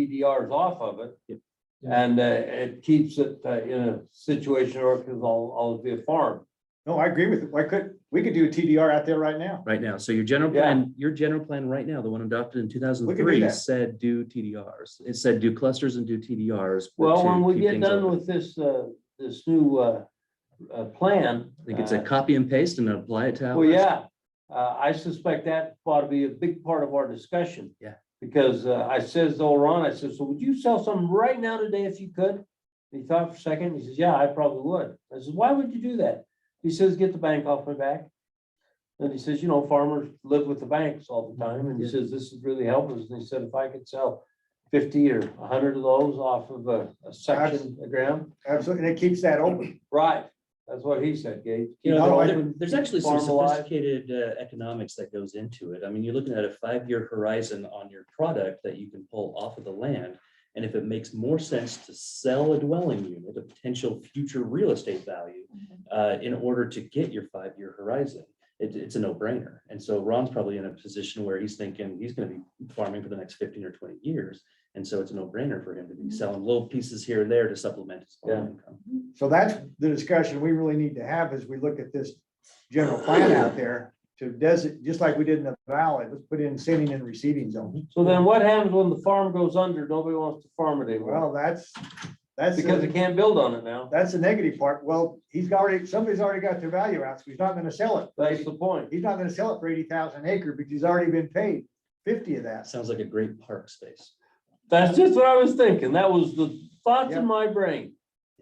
TDRs off of it. Yep. And uh, it keeps it uh, in a situation or because I'll, I'll be a farm. No, I agree with it. Why could, we could do a TDR out there right now. right now. So your general Yeah. plan, your general plan right now, the one adopted in two thousand and do three that. said do TDRs. It said do clusters and do TDRs. but Well, to when we keep get things done open. with this, uh, this new, uh, uh, plan. I think it's a uh, copy and paste and apply it to. Well, ours. yeah, uh, I suspect that ought to be a big part of our discussion. Yeah. Because uh, I says, oh, Ron, I said, so would you sell some right now today if you could? He thought for a second, he says, yeah, I probably would. I says, why would you do that? He says, get the bank off my back. And he says, you know, farmers live with the banks all the time, and he Yeah. says, this is really helping us, and he said, if I could sell fifty or hundred of those off of a, a section of ground, Absolutely. And it keeps that open. right, that's what he said, Gabe. You know, Otherwise- there- there- there's actually some Farm alive. sophisticated uh, economics that goes into it. I mean, you're looking at a five-year horizon on your product that you can pull off of the land. And if it makes more sense to sell a dwelling unit, a potential future real estate value, uh, in order to get your five-year horizon, it, it's a no-brainer. And so Ron's probably in a position where he's thinking he's gonna be farming for the next fifteen or twenty years. And so it's a no-brainer for him to be selling little pieces here and there to supplement his farm Yeah. income. So that's the discussion we really need to have as we look at this general plan out there to designate, just like we did in the valley, let's put in sending and receiving zone. So then what happens when the farm goes under? Nobody wants to farm it anymore Well, that's, that's, because they the- can't build on it now. that's the negative part. Well, he's already, somebody's already got their value out, so he's not gonna sell it. That's the point. He's not gonna sell it for eighty thousand acre because he's already been paid fifty of that. Sounds like a great park space. That's just what I was thinking. That was the thoughts in my brain.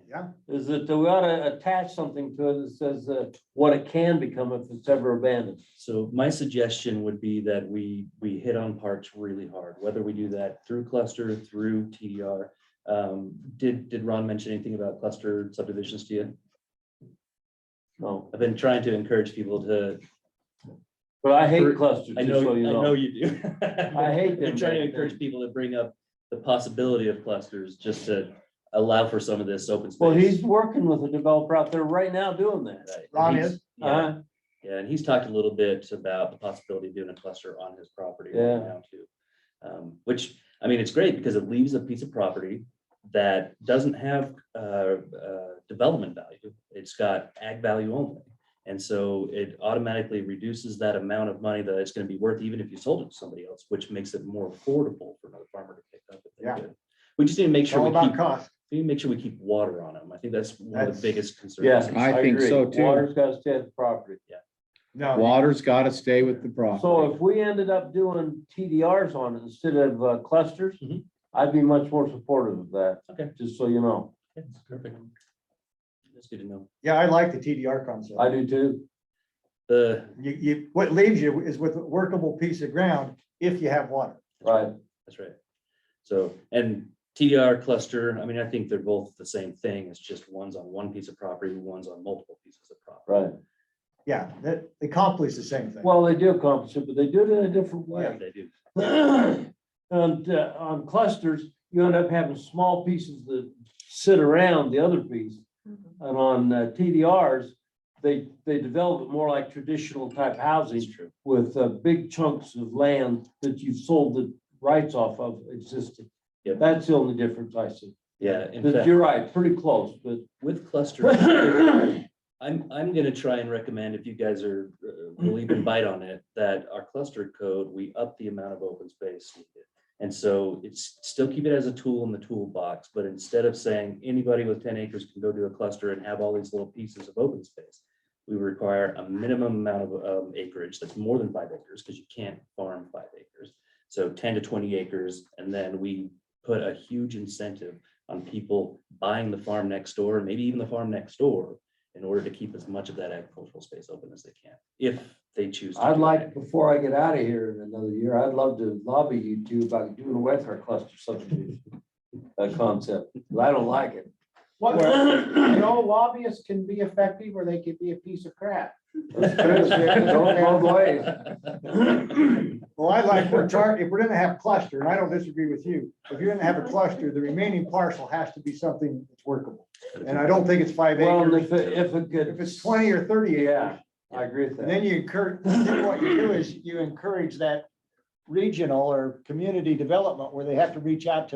Yeah. Is that we ought to attach something to it that says uh, what it can become if it's ever abandoned. So my suggestion would be that we, we hit on parks really hard, whether we do that through cluster, through TDR. Um, did, did Ron mention anything about cluster subdivisions to you? No, I've been trying to encourage people to, but I hate clusters, I just know, so I you know know. you do. I hate them, Been trying to but- encourage people to bring up the possibility of clusters, just to allow for some of this open space. Well, he's working with a developer out there right now doing that. Right, and Ron he's- is? Yeah, Uh, yeah, and he's talked a little bit about the possibility of doing a cluster on his property Yeah. right now too. Um, which, I mean, it's great because it leaves a piece of property that doesn't have, uh, uh, development value. It's got ag value only. And so it automatically reduces that amount of money that it's gonna be worth, even if you sold it to somebody else, which makes it more affordable for another farmer to pick up. if they Yeah. did. We just need to make It's sure all we about keep, cost. we need to make sure we keep water on them. I think that's one of That's- the biggest concerns. yeah. I think agree. so, too. Water's got to stay at the property. No, Water's gotta stay with the So property. if we ended up doing TDRs on it instead of uh, clusters, Mhm. I'd be much more supportive of that. Okay. Just so you know, Okay, Perfect. That's good to know. yeah, I like the TDR concept. I do too. The, You, you, what leaves you is with a workable piece of ground if you have water. Right. that's right. So, and TDR cluster, I mean, I think they're both the same thing. It's just one's on one piece of property, one's on multiple pieces of property. Right. Yeah, that they accomplish the same thing. Well, they do accomplish it, but they do it in a different Yeah, way. They do. And uh, on clusters, you end up having small pieces that sit around the other piece. And on uh, TDRs, they, they develop it more like traditional type housing. That's true. with uh, big chunks of land that you've sold the rights off of existing. Yep. That's the only difference I see. Yeah, in But fact, You're right, pretty close, but with clusters, I'm, I'm gonna try and recommend if you guys are, uh, will even bite on it, that our cluster code, we up the amount of open space. needed. And so it's still keep it as a tool in the toolbox, but instead of saying anybody with ten acres can go do a cluster and have all these little pieces of open space. We require a minimum amount of um, acreage that's more than five acres, because you can't farm five acres. So ten to twenty acres, and then we put a huge incentive on people buying the farm next door, maybe even the farm next door in order to keep as much of that agricultural space open as they can, if they choose. to I'd do like, that. before I get out of here in another year, I'd love to lobby you two about doing away with our cluster subdivision uh, concept, but I don't like it. Well, you know, lobbyists can be effective or they could be a piece of crap. It goes both ways. Well, I like, we're chart, if we're gonna have cluster, and I don't disagree with you, if you're gonna have a cluster, the remaining parcel has to be something that's workable. And I don't think it's five Well, and acres. if it, if it If could, it's twenty or thirty yeah, acres, I agree with and that. then you encourage, then what you do is you encourage that regional or community development where they have to reach out to